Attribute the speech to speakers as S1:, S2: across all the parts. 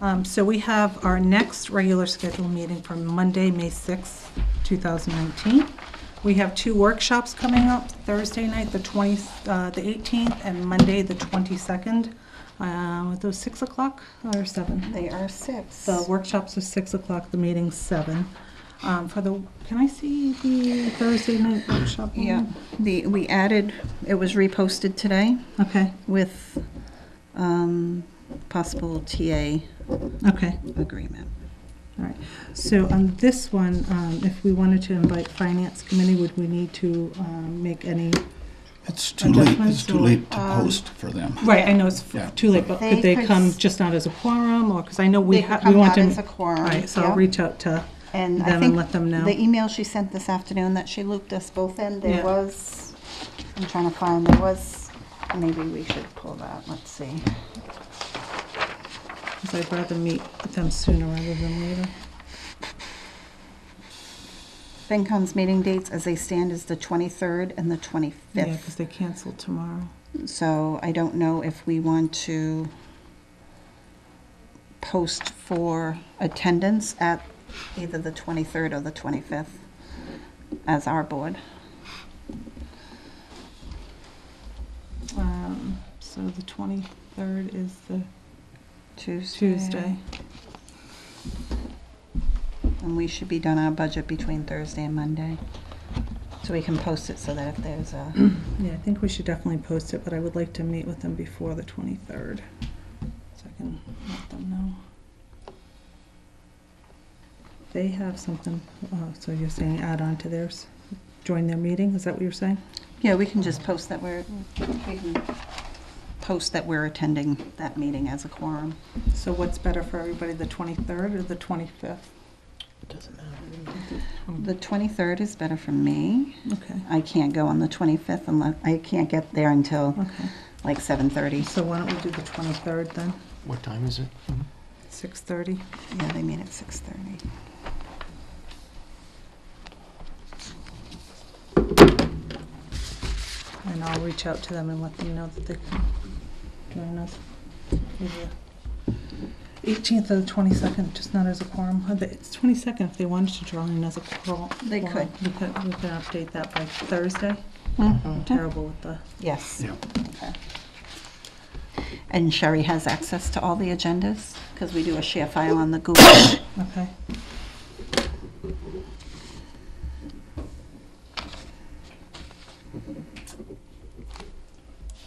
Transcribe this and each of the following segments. S1: Um, So we have our next regular scheduled meeting for Monday, May sixth, two 2019. We have two workshops coming up, Thursday night, the 20, uh, the 18th, and Monday, the 22nd. Um, Are those 6 o'clock or 7?
S2: They are six.
S1: The workshops are 6 o'clock, the meeting's 7. Um, For the, can I see the Thursday night workshop? one?
S2: Yeah, the, we added, it was reposted today
S1: Okay,
S2: with um, possible TA
S1: okay.
S2: agreement.
S1: All right, so on this one, um, if we wanted to invite Finance Committee, would we need to um, make any?
S3: It's too late,
S1: Adjustments
S3: it's too
S1: or,
S3: late to
S1: um,
S3: post for them.
S1: Right, I know it's
S3: Yeah.
S1: too late, but could
S2: They
S1: they
S2: could
S1: come
S2: s-
S1: just not as a quorum, or, because I know we
S2: They could
S1: have, we
S2: come
S1: want
S2: out
S1: to.
S2: as a quorum,
S1: Right, so I'll
S2: yeah.
S1: reach out to them
S2: And I
S1: and
S2: think
S1: let them know.
S2: the email she sent this afternoon that she looped us both
S1: Yeah.
S2: in, there was, I'm trying to find, there was, maybe we should pull that, let's see.
S1: 'Cause I'd rather meet with them sooner rather than later.
S2: FinCom's meeting dates as they stand is the 23rd and the
S1: Yeah, because
S2: 25th.
S1: they canceled tomorrow.
S2: So I don't know if we want to post for attendance at either the 23rd or the 25th as our board.
S1: Um, So the 23rd is the
S2: Tuesday.
S1: Tuesday.
S2: And we should be done our budget between Thursday and Monday. So we can post it so that if there's a,
S1: Yeah, I think we should definitely post it, but I would like to meet with them before the 23rd, so I can let them know. They have something, uh, so you're saying add on to theirs, join their meeting, is that what you're saying?
S2: yeah, we can just post that we're, we can post that we're attending that meeting as a quorum.
S1: So what's better for everybody, the 23rd or the 25th?
S4: Doesn't matter.
S2: The 23rd is better for me.
S1: Okay,
S2: I can't go on the 25th unless, I can't get there until
S1: okay.
S2: like 7:30.
S1: So why don't we do the 23rd then,
S4: What time is it?
S1: 6:30?
S2: Yeah, they meet at 6:30.
S1: And I'll reach out to them and let them know that they can join us. either Eighteenth or the twenty-second, just not as a quorum, Or the- it's twenty-second if they wanted to join as a quorum.
S2: They could.
S1: We could, we could update that by Thursday, I'm terrible with the,
S2: Yes.
S3: Yeah.
S2: Okay. And Sherry has access to all the agendas because we do a share file on the Google.
S1: okay.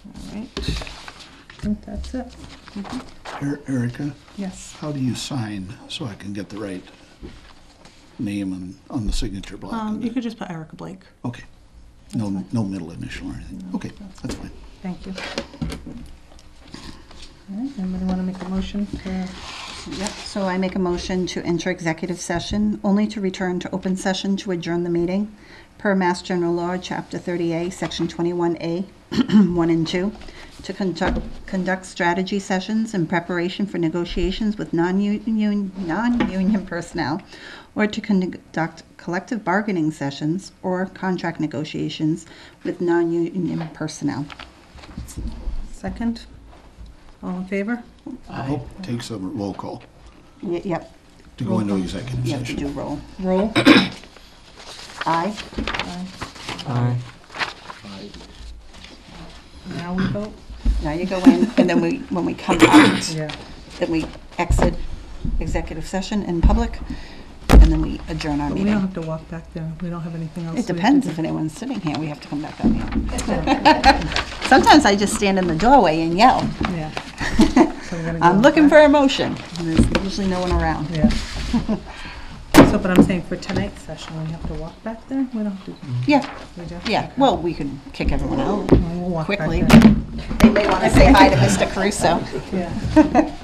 S1: All right, I think that's it,
S3: E- Erica,
S1: yes.
S3: how do you sign so I can get the right name on, on the signature block?
S1: Um, you could just put Erica Blake.
S3: Okay. No, no middle initial or anything. Okay, that's fine.
S1: Thank you. All right, anybody want to make a motion to,
S2: Yep, so I make a motion to enter executive session, only to return to open session to adjourn the meeting per Mass General Law, Chapter 30A, Section 21A, 1 and 2, to conduct, conduct strategy sessions in preparation for negotiations with non-union, non-union personnel, or to conduct collective bargaining sessions or contract negotiations with non-union personnel.
S1: second? All in favor?
S3: I hope it takes a roll call
S2: Y- Yep,
S3: to go into executive
S2: you have to do
S3: session.
S2: roll.
S1: Roll.
S2: Aye.
S1: Aye.
S4: Aye.
S1: Now we vote?
S2: Now you go in, and then we, when we come out,
S1: Yeah.
S2: then we exit executive session in public, and then we adjourn our
S1: But we don't
S2: meeting.
S1: have to walk back there. We don't have anything else.
S2: It depends if anyone's sitting here, we have to come back up here. Sometimes I just stand in the doorway and yell,
S1: Yeah. So we're gonna go
S2: I'm looking for
S1: back.
S2: a motion, and there's usually no one around.
S1: Yeah. So, but I'm saying for tonight's session, we have to walk back there? We don't have to,
S2: Yeah,
S1: we do?
S2: yeah, well, we can kick everyone out
S1: We'll walk back
S2: quickly.
S1: there.
S2: They may want to say hi to Mr. Caruso.
S1: Yeah.